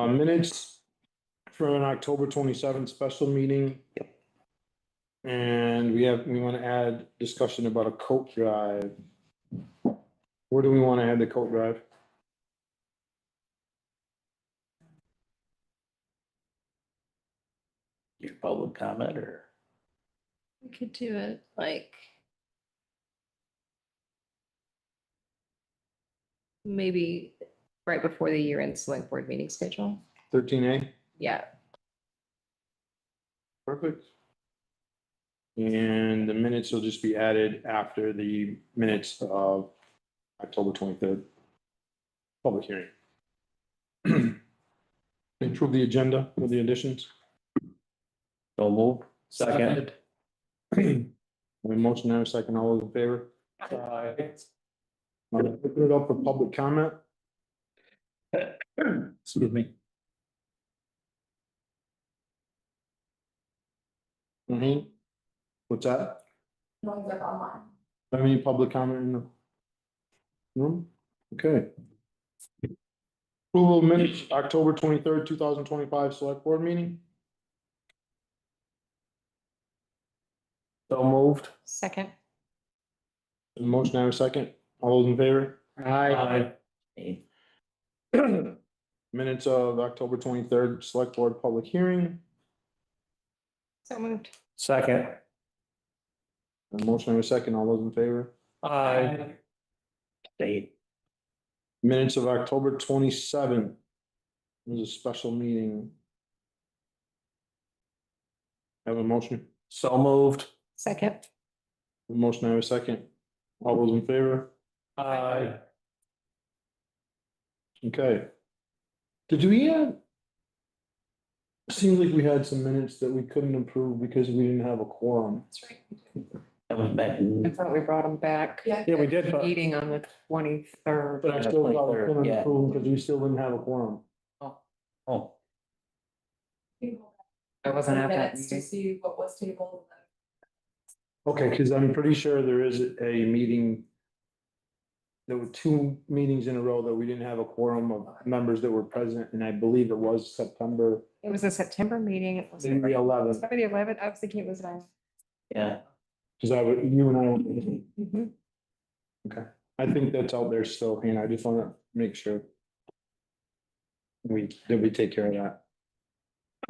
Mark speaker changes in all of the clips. Speaker 1: Uh, minutes from an October twenty-seventh special meeting. And we have, we want to add discussion about a coat drive. Where do we want to add the coat drive?
Speaker 2: Your public comment or?
Speaker 3: We could do it like. Maybe right before the year end select board meeting schedule.
Speaker 1: Thirteen A,
Speaker 3: Yeah,
Speaker 1: perfect. And the minutes will just be added after the minutes of October twenty-third. Public hearing. Improve the agenda with the additions.
Speaker 2: Don't move.
Speaker 4: Second.
Speaker 1: We motion and a second, all those in favor? I'm gonna open it up for public comment.
Speaker 2: Excuse me.
Speaker 1: Mm-hmm. What's that?
Speaker 5: ones up online.
Speaker 1: Any public comment in the room? Okay. Approval of minutes, October twenty-third, two thousand twenty-five, select board meeting.
Speaker 2: So moved.
Speaker 3: second.
Speaker 1: Motion and a second, all those in favor?
Speaker 2: Aye. Aye.
Speaker 1: Minutes of October twenty-third, select board public hearing.
Speaker 3: So moved.
Speaker 2: Second.
Speaker 1: And Motion and a second, all those in favor?
Speaker 2: Aye. State.
Speaker 1: Minutes of October twenty-seventh. It was a special meeting. Have a motion?
Speaker 2: So moved.
Speaker 3: Second.
Speaker 1: Motion, I have a second. All those in favor?
Speaker 2: Aye.
Speaker 1: Okay. Did we have? Seems like we had some minutes that we couldn't approve because we didn't have a quorum.
Speaker 3: That's right.
Speaker 2: That was back
Speaker 6: I
Speaker 2: in,
Speaker 6: thought we brought them back.
Speaker 5: Yeah.
Speaker 1: Yeah, we did, but.
Speaker 6: Meeting on the twenty-third.
Speaker 1: But I still thought we couldn't
Speaker 2: Yeah.
Speaker 1: approve because we still didn't have a quorum.
Speaker 2: oh,
Speaker 6: I wasn't at that
Speaker 5: Minutes to
Speaker 6: meeting.
Speaker 5: see what was tabled.
Speaker 1: Okay, because I'm pretty sure there is a meeting. There were two meetings in a row that we didn't have a quorum of members that were present, and I believe it was September,
Speaker 6: It was a September meeting. It was
Speaker 1: maybe
Speaker 6: September
Speaker 1: the eleventh,
Speaker 6: the eleventh. I was thinking it was nine.
Speaker 2: yeah.
Speaker 1: because I, would- you and I were
Speaker 5: Mm-hmm.
Speaker 6: Mhm.
Speaker 1: I think that's out there still, and I just wanna make sure. We, that we take care of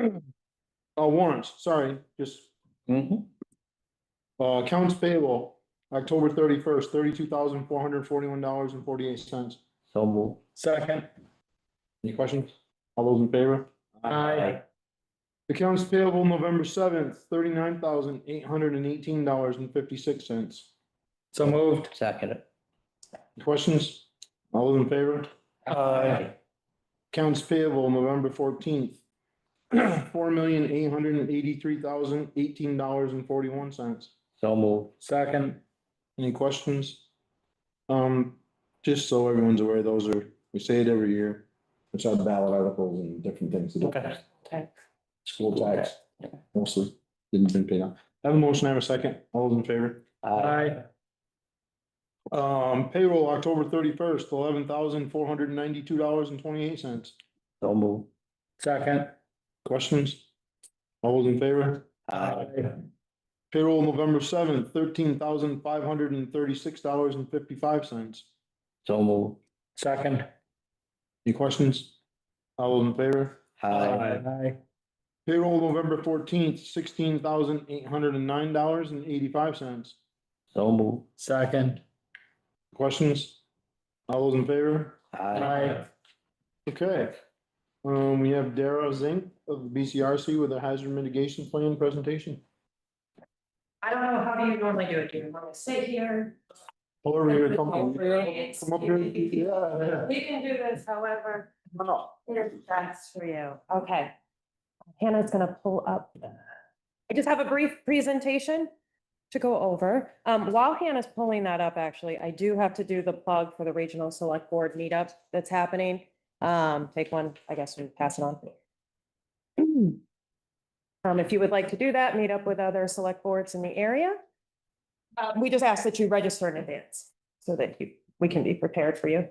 Speaker 1: that. Oh, warrants, sorry, just,
Speaker 2: Mm-hmm.
Speaker 1: uh, accounts payable, October thirty-first, thirty-two thousand, four hundred forty-one dollars and forty-eight cents.
Speaker 2: So moved.
Speaker 1: Second. Any questions? All those in favor?
Speaker 2: Aye.
Speaker 1: Accounts payable, November seventh, thirty-nine thousand, eight hundred and eighteen dollars and fifty-six cents.
Speaker 2: So moved. Second.
Speaker 1: Questions? All those in favor?
Speaker 2: Aye.
Speaker 1: Accounts payable, November fourteenth, four million eight hundred and eighty-three thousand eighteen dollars and forty-one cents.
Speaker 2: So moved.
Speaker 1: Second. Any questions? Um, just so everyone's aware, those are, we say it every year, it's our ballot articles and different things. to do.
Speaker 2: Okay.
Speaker 6: Okay.
Speaker 1: School tax,
Speaker 2: Yeah.
Speaker 1: mostly, didn't been paid out. Have a motion, have a second, all those in favor?
Speaker 2: Aye.
Speaker 1: Um, payroll, October thirty-first, eleven thousand four hundred and ninety-two dollars and twenty-eight cents.
Speaker 2: So moved.
Speaker 1: Second. Questions? All those in favor?
Speaker 2: Aye.
Speaker 1: Payroll November seventh, thirteen thousand five hundred and thirty-six dollars and fifty-five cents.
Speaker 2: So moved.
Speaker 1: Second. Any questions? All those in favor?
Speaker 2: Aye.
Speaker 1: Payroll November fourteenth, sixteen thousand eight hundred and nine dollars and eighty-five cents.
Speaker 2: So moved.
Speaker 4: Second.
Speaker 1: Questions? All those in favor?
Speaker 2: Aye.
Speaker 1: Okay. Um, we have Dara Zink of the BCRC with a hazard mitigation plan presentation.
Speaker 5: I don't know, how do you normally do it? Do you want to sit here?
Speaker 1: Or we would come.
Speaker 5: Come up
Speaker 1: here. Yeah.
Speaker 5: We can do this however,
Speaker 1: Come on.
Speaker 5: here's best for you. Okay. Hannah's gonna pull up.
Speaker 7: I just have a brief presentation to go over. Um, while Hannah's pulling that up, actually, I do have to do the plug for the regional select board meetup that's happening. Um, take one, I guess, and pass it on. Um, if you would like to do that, meet up with other select boards in the area. Uh,
Speaker 5: Um,
Speaker 7: we just ask that you register in advance so that you, we can be prepared for you.